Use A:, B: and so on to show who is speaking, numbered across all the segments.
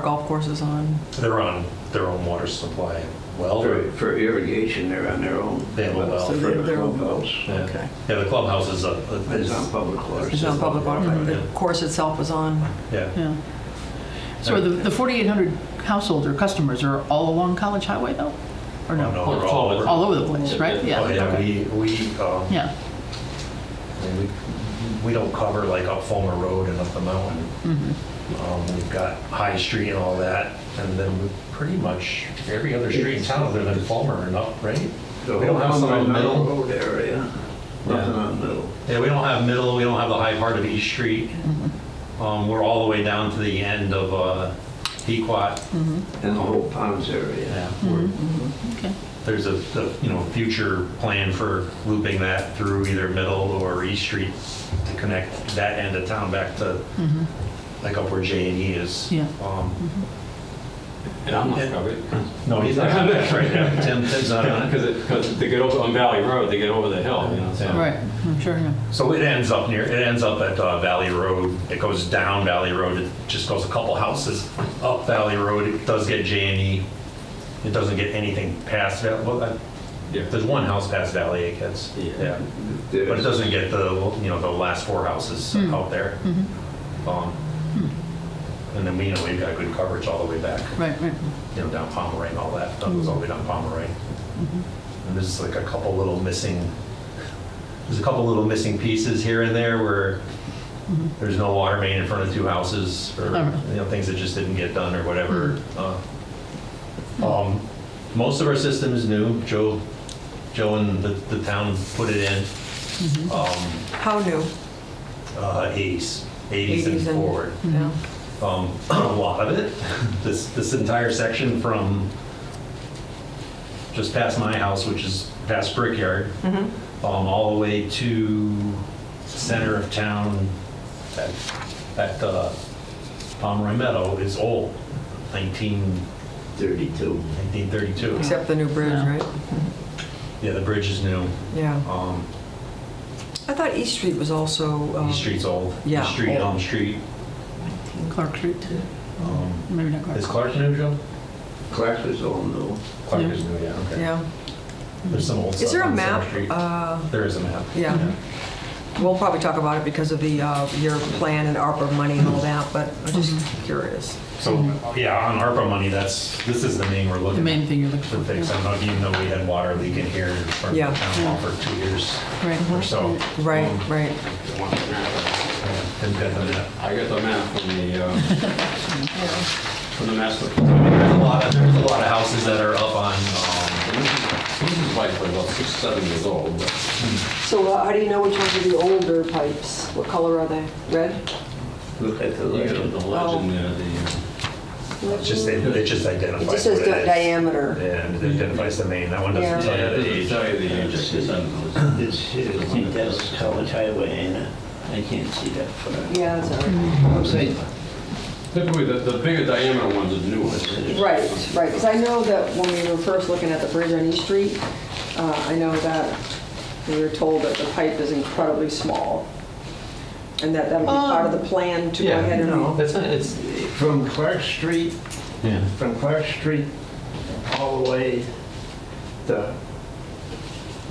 A: golf courses on.
B: They're on their own water supply well.
C: For, for irrigation, they're on their own.
B: They have a well.
C: For
A: So they're-
C: the
A: they're-
C: clubhouse.
B: Yeah.
A: Okay.
B: Yeah, the clubhouse is a,
C: It's
B: is,
C: on public water.
A: It's on public water, but the
B: Yeah.
A: course itself was on.
B: yeah.
D: Yeah. So the, the 4,800 households or customers are all along College Highway though?
B: Oh,
D: Or no?
B: we're all over.
D: All over the place, right?
B: Oh, yeah,
D: okay.
B: we, we, um,
D: Yeah,
B: I mean, we, we don't cover like up Fulmer Road and up the mountain. Um, we've got High Street and all that, and then we pretty much every other street in town other than Fulmer and up, right?
C: The
B: We don't have
C: whole
B: some in the middle.
C: Road area, nothing on middle.
B: Yeah, we don't have middle, we don't have the high part of East Street. Um, we're all the way down to the end of, uh, Pequot.
C: And the whole ponds area.
B: Yeah, we're-
D: okay.
B: there's a, a, you know, future plan for looping that through either Middle or East Street to connect that end of town back to, like up where J and E is.
D: Mm-hmm. Yeah.
B: Um,
E: And I'm not
B: Yeah.
E: covered.
B: No, he's not on that right now. Tim, Tim's not on it.
E: Because they get over on Valley Road, they get over the hill, you know, so.
B: Yeah.
D: Right, I'm sure, yeah.
B: So it ends up near, it ends up at uh, Valley Road. It goes down Valley Road. It just goes a couple houses up Valley Road. It does get J and E. It doesn't get anything past, Val- well, I-
E: Yeah.
B: there's one house past Valley it gets.
E: Yeah.
B: But it
C: There's-
B: doesn't get the, you know, the last four houses out there. Um, And then we, you know, we've got good coverage all the way back,
D: Right, right.
B: you know, down Pomeroy and all that, that goes all the way down Pomeroy. And there's like a couple little missing, there's a couple little missing pieces here and there where there's no water main in front of two houses or,
D: Oh.
B: you know, things that just didn't get done or whatever. Uh, um, Most of our system is new. Joe, Joe and the, the town put it in. Um,
A: How new?
B: uh, 80s, 80s and forward.
A: Yeah.
B: Um, A lot of it, this, this entire section from just past my house, which is past Brickyard,
A: Mm-hmm.
B: um, all the way to center of town, that, that uh, Pomeroy Meadow is old, 19,
C: 32.
B: 1932.
A: Except the new bridge,
D: Yeah.
A: right?
B: Yeah, the bridge is new.
A: Yeah.
B: Um,
A: I thought East Street was also. um,
B: East Street's old. East
A: Yeah,
B: Street,
A: old.
B: Elm Street.
D: Clark Street, too.
B: Um,
D: maybe not Clark.
B: Is Clark new, Joe?
C: Clark was all new.
B: Clark
D: Yeah.
B: is new, yeah, okay.
A: Yeah.
B: There's some old stuff.
A: Is there a
B: on Center
A: map?
B: Street.
A: Uh,
B: There is a map.
A: Yeah. We'll probably talk about it because of the, uh, your plan and ARPA money and all that, but I'm just curious.
B: So, yeah, on ARPA money, that's, this is the main we're looking.
D: The main thing you're looking
B: To
D: for.
B: fix,
D: yeah.
B: I don't know, even though we had water leak in here in front
A: Yeah.
B: of the town hall for two years or
D: Right,
B: so.
A: Right,
B: Um,
A: right.
B: yeah, and then the map.
E: I got the map from the, uh, from the master.
B: There's a
E: plan.
B: lot of, there's a lot of houses that are up on, um,
E: This is like, about six, seven years old, but
A: So uh, how do you know which ones are the older pipes? What color are they? Red?
C: Look at the
E: the legend,
C: legend.
E: the legend, uh, the,
B: it's just, it it just identifies
F: It just says
B: what it is.
F: diameter.
B: And it identifies the main, that one doesn't
E: uh,
B: tell you
E: yeah, it
B: the
E: doesn't
B: age.
E: tell you the age. It's just on this.
C: This here, I think that's College Highway, ain't it? I can't see that far.
F: Yeah, that's all right.
C: I'm saying,
E: Typically, the, the bigger diameter ones are the new ones.
F: Right, right, because I know that when we were first looking at the bridge on East Street, uh, I know that we were told that the pipe is incredibly small, and that that was part of the plan to go ahead and...
B: that's not, it's,
C: from Clark Street
B: yeah.
C: from Clark Street all the way to,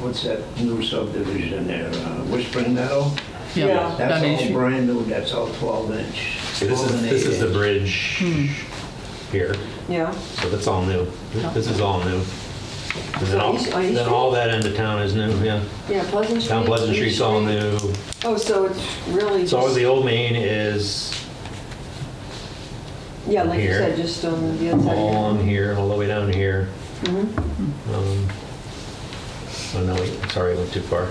C: what's that new subdivision there, uh, Whispering Meadow?
D: yeah.
F: Yeah.
D: Down
C: That's
D: Main
C: all
D: Street.
C: brand new, that's all 12 inch.
B: So This is, this is the bridge here,
F: Yeah,
B: so that's all new. This is all new. And then
F: So
B: all,
F: East- on East
B: then all that end of town is new, yeah.
F: yeah, Pleasant Street.
B: Town Pleasant
F: East
B: Street's all new.
F: Oh, so it's really
B: So all
F: just,
B: the old main is
F: yeah, like you
B: here.
F: said, just on the other side.
B: all on here, all the way down here.
F: Mm-hmm.
B: Um, Oh, no, wait, sorry, I went too far.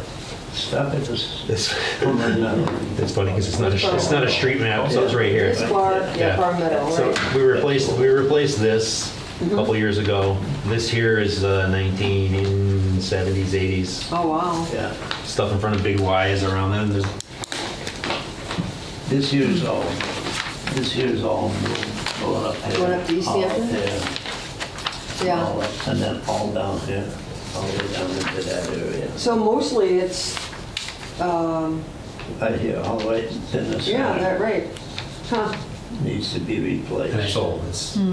C: Stop at this,
B: It's,
C: Whispering Meadow.
B: it's funny because it's not a, it's not a street map, so it's right here.
F: It's Clark,
B: Yeah.
F: yeah, Far Meadow,
B: So
F: right. Mm-hmm.
B: we replaced, we replaced this a couple years ago. This here is uh, 1970s, 80s,
F: Oh, wow.
C: Yeah,
B: stuff in front of Big Y is around then. There's
C: this here's all, this here's all new, going up here.
F: Going up to East
C: all up
F: Hampton?
C: there, all
F: Yeah,
C: up, And then all down here, all the way down into that area.
F: so mostly it's, um,
C: Right here, all the way in the center.
F: yeah, that, right. Huh,
G: needs to be replaced.
C: And it's old, it's